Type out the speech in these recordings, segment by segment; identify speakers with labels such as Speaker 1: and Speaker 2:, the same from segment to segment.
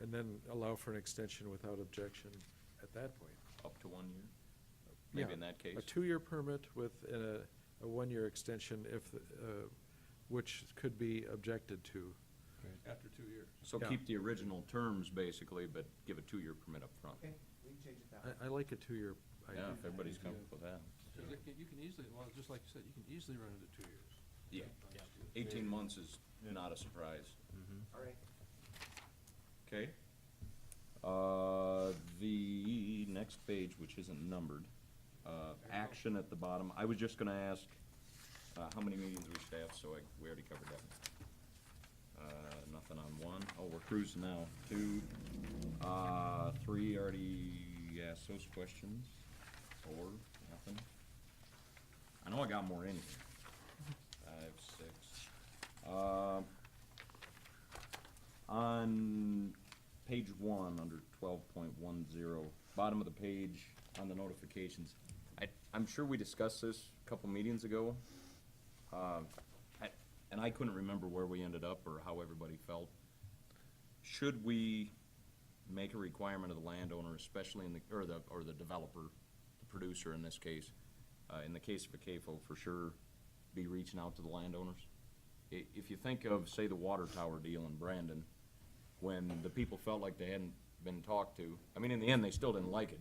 Speaker 1: and then allow for an extension without objection at that point.
Speaker 2: up to one year? Maybe
Speaker 1: Yeah,
Speaker 2: in that case?
Speaker 1: A two-year permit with a, a one-year extension if, uh, which could be objected to.
Speaker 3: After two years.
Speaker 2: So
Speaker 1: yeah.
Speaker 2: keep the original terms basically, but give a two-year permit up front.
Speaker 4: Okay, we can change it that way.
Speaker 1: I, I like a two-year idea.
Speaker 2: Yeah, if everybody's comfortable with that.
Speaker 3: Because it can- you can easily, well, just like you said, you can easily run into two years.
Speaker 2: Yeah, eighteen months is not a surprise.
Speaker 4: All right,
Speaker 2: Okay. Uh, the next page, which isn't numbered, uh, action at the bottom, I was just gonna ask, uh, how many meetings we staffed, so I, we already covered that. Uh, nothing on one. Oh, we're cruising now, two, uh, three, already asked those questions, four, nothing. I know I got more in here. Five, six, um, on page one, under twelve point one zero, bottom of the page, on the notifications, I, I'm sure we discussed this a couple meetings ago. Um, I- And I couldn't remember where we ended up or how everybody felt. Should we make a requirement of the landowner, especially in the, or the, or the developer, the producer in this case, uh, in the case of a CAFO, for sure, be reaching out to the landowners? i- if you think of, say, the water tower deal in Brandon, when the people felt like they hadn't been talked to, I mean, in the end, they still didn't like it,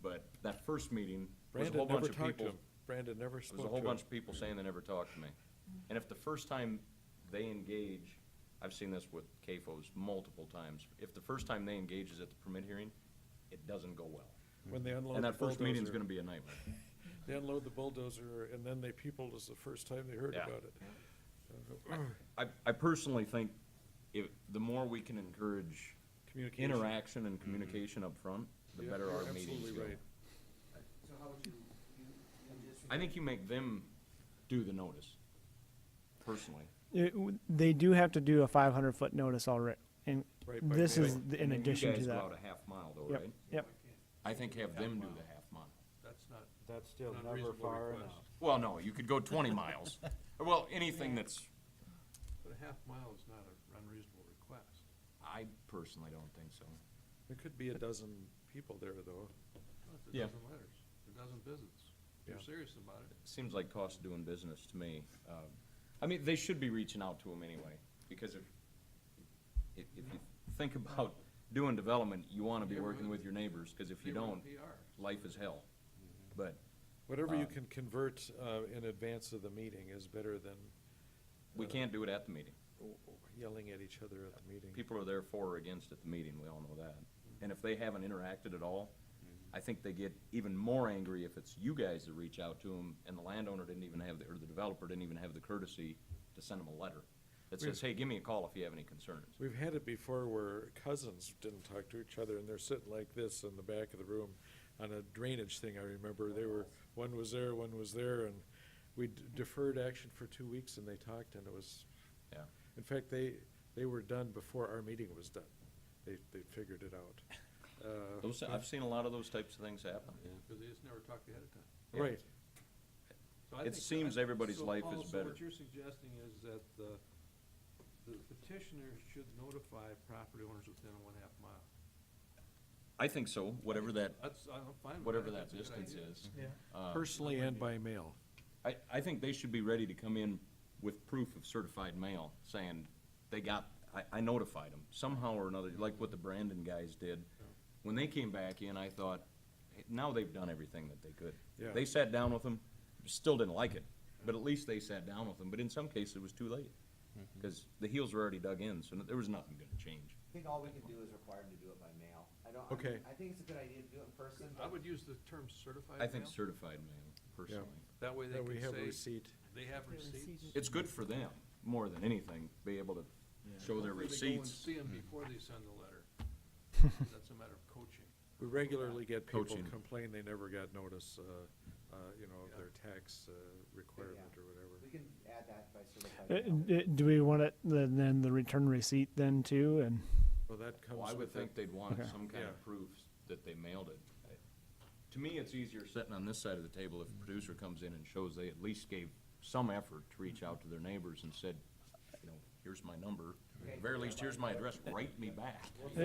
Speaker 2: but that first meeting was a whole
Speaker 1: Brandon never
Speaker 2: bunch of
Speaker 1: talked to
Speaker 2: people.
Speaker 1: him. Brandon never
Speaker 2: There was a
Speaker 1: spoke
Speaker 2: whole
Speaker 1: to him.
Speaker 2: bunch of people saying they never talked to me. And if the first time they engage, I've seen this with CAFOs multiple times, if the first time they engage is at the permit hearing, it doesn't go well.
Speaker 1: When they unload
Speaker 2: And
Speaker 1: the
Speaker 2: that first meeting's
Speaker 1: bulldozer-
Speaker 2: gonna be a nightmare.
Speaker 1: They unload the bulldozer and then they peopled us the first time they heard
Speaker 2: Yeah.
Speaker 1: about it.
Speaker 2: I, I personally think if, the more we can encourage
Speaker 1: Communication. Mm-hmm.
Speaker 2: interaction and communication up front, the
Speaker 1: Yeah,
Speaker 2: better
Speaker 1: you're
Speaker 2: our meetings
Speaker 1: absolutely
Speaker 2: go.
Speaker 1: right.
Speaker 4: uh, so how would you, you, you just.
Speaker 2: I think you make them do the notice, personally.
Speaker 5: It w- They do have to do a five hundred foot notice already, and
Speaker 1: Right, by
Speaker 5: this
Speaker 1: May.
Speaker 5: is th- in
Speaker 2: And then you
Speaker 5: addition
Speaker 2: guys
Speaker 5: to
Speaker 2: go
Speaker 5: that.
Speaker 2: out a half mile though,
Speaker 5: Yep,
Speaker 2: right?
Speaker 5: yep.
Speaker 2: I think have them do the half mile.
Speaker 3: That's not,
Speaker 6: That's still
Speaker 3: Not
Speaker 6: never
Speaker 3: reasonable
Speaker 6: far
Speaker 3: request.
Speaker 6: enough.
Speaker 2: Well, no, you could go twenty miles. Well, anything that's,
Speaker 3: but a half mile is not an unreasonable request.
Speaker 2: I personally don't think so.
Speaker 1: There could be a dozen people there though.
Speaker 3: It's a
Speaker 2: Yeah.
Speaker 3: dozen letters, a dozen visits. If you're
Speaker 1: Yeah.
Speaker 3: serious about it,
Speaker 2: Seems like cost of doing business to me. Um, I mean, they should be reaching out to them anyway, because if, if, if you think about doing development, you wanna be working with your neighbors, cause if you
Speaker 3: they were in
Speaker 2: don't,
Speaker 3: PR.
Speaker 2: life is hell. But
Speaker 1: Whatever you
Speaker 2: Um,
Speaker 1: can convert, uh, in advance of the meeting is better than
Speaker 2: we can't do it at the meeting.
Speaker 1: yelling at each other at the meeting.
Speaker 2: People are there for or against at the meeting, we all know that. And if they haven't interacted at all, I think they get even more angry if it's you guys that reach out to them and the landowner didn't even have, the or the developer didn't even have the courtesy to send them a letter that says, hey, give me a call if you have any concerns.
Speaker 1: We've had it before where cousins didn't talk to each other and they're sitting like this in the back of the room on a drainage thing, I remember. They were,
Speaker 2: Oh.
Speaker 1: one was there, one was there, and we d- deferred action for two weeks and they talked and it was,
Speaker 2: Yeah.
Speaker 1: in fact, they, they were done before our meeting was done. They, they figured it out. Uh,
Speaker 2: Those, I've seen a lot of those types of things happen.
Speaker 3: Because they just never talked ahead of time.
Speaker 1: Right,
Speaker 3: So I
Speaker 2: It
Speaker 3: think that-
Speaker 2: seems everybody's
Speaker 3: so,
Speaker 2: life
Speaker 3: Paul,
Speaker 2: is
Speaker 3: So
Speaker 2: better.
Speaker 3: what you're suggesting is that the, the petitioner should notify property owners within a one-half mile.
Speaker 2: I think so, whatever that,
Speaker 3: That's, I'm fine with that.
Speaker 2: whatever
Speaker 3: I
Speaker 2: that
Speaker 3: think it's a good
Speaker 2: distance
Speaker 3: idea.
Speaker 2: is.
Speaker 4: Yeah.
Speaker 2: Uh,
Speaker 1: personally and by mail.
Speaker 2: I, I think they should be ready to come in with proof of certified mail, saying they got, I, I notified them somehow or another, like what the Brandon guys did. When they came back in, I thought, "Hey, now they've done everything that they could.
Speaker 1: Yeah.
Speaker 2: They sat down with them, still didn't like it, but at least they sat down with them, but in some cases, it was too late. Cause the heels were already dug in, so there was nothing gonna change.
Speaker 4: I think all we can do is require them to do it by mail. I don't, I
Speaker 1: Okay.
Speaker 4: mean, I think it's a good idea to do it in person,
Speaker 3: I
Speaker 4: but
Speaker 3: would use the term certified
Speaker 2: I think
Speaker 3: mail.
Speaker 2: certified mail, personally.
Speaker 3: That way they
Speaker 1: That we have a
Speaker 3: can say,
Speaker 1: receipt.
Speaker 3: they have receipts.
Speaker 2: It's good for them, more than anything, be able to show their
Speaker 3: Hopefully
Speaker 2: receipts.
Speaker 3: They go and see them before they send the letter. That's a matter of coaching.
Speaker 1: We regularly get people
Speaker 2: Coaching.
Speaker 1: complain they never got notice, uh, uh, you know, of
Speaker 3: Yeah.
Speaker 1: their tax uh, requirement or whatever.
Speaker 4: we can add that by certified
Speaker 5: Uh,
Speaker 4: mail.
Speaker 5: d- Do we want it, then then the return receipt then too, and?
Speaker 1: Well, that comes
Speaker 2: Well, I would
Speaker 1: with
Speaker 2: think
Speaker 1: it.
Speaker 2: they'd want
Speaker 5: Okay.
Speaker 2: some kind
Speaker 1: Yeah.
Speaker 2: of proof that they mailed it. I- To me, it's easier sitting on this side of the table if
Speaker 1: Mm-hmm.
Speaker 2: a producer comes in and shows they at least gave some effort to reach out to their neighbors and said, you know, here's my number, at the very least, here's my address, write me back.